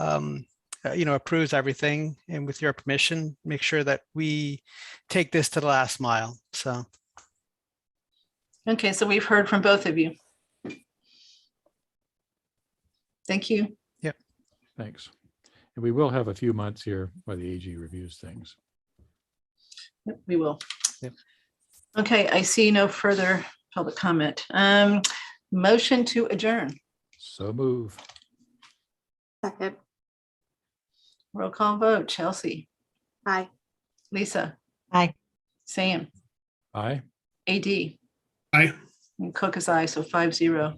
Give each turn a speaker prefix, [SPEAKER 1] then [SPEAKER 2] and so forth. [SPEAKER 1] um, uh, you know, approves everything and with your permission, make sure that we take this to the last mile. So,
[SPEAKER 2] Okay, so we've heard from both of you. Thank you.
[SPEAKER 3] Thanks. And we will have a few months here where the AG reviews things.
[SPEAKER 2] Yep, We will.
[SPEAKER 1] Yep.
[SPEAKER 2] Okay, I see no further public comment. Um, motion to adjourn.
[SPEAKER 3] So move.
[SPEAKER 4] Second,
[SPEAKER 2] Roll call vote. Chelsea,
[SPEAKER 4] aye.
[SPEAKER 2] Lisa.
[SPEAKER 5] Aye.
[SPEAKER 2] Sam,
[SPEAKER 3] Aye.
[SPEAKER 2] AD.
[SPEAKER 6] Aye.
[SPEAKER 2] And Cook is aye, so five zero.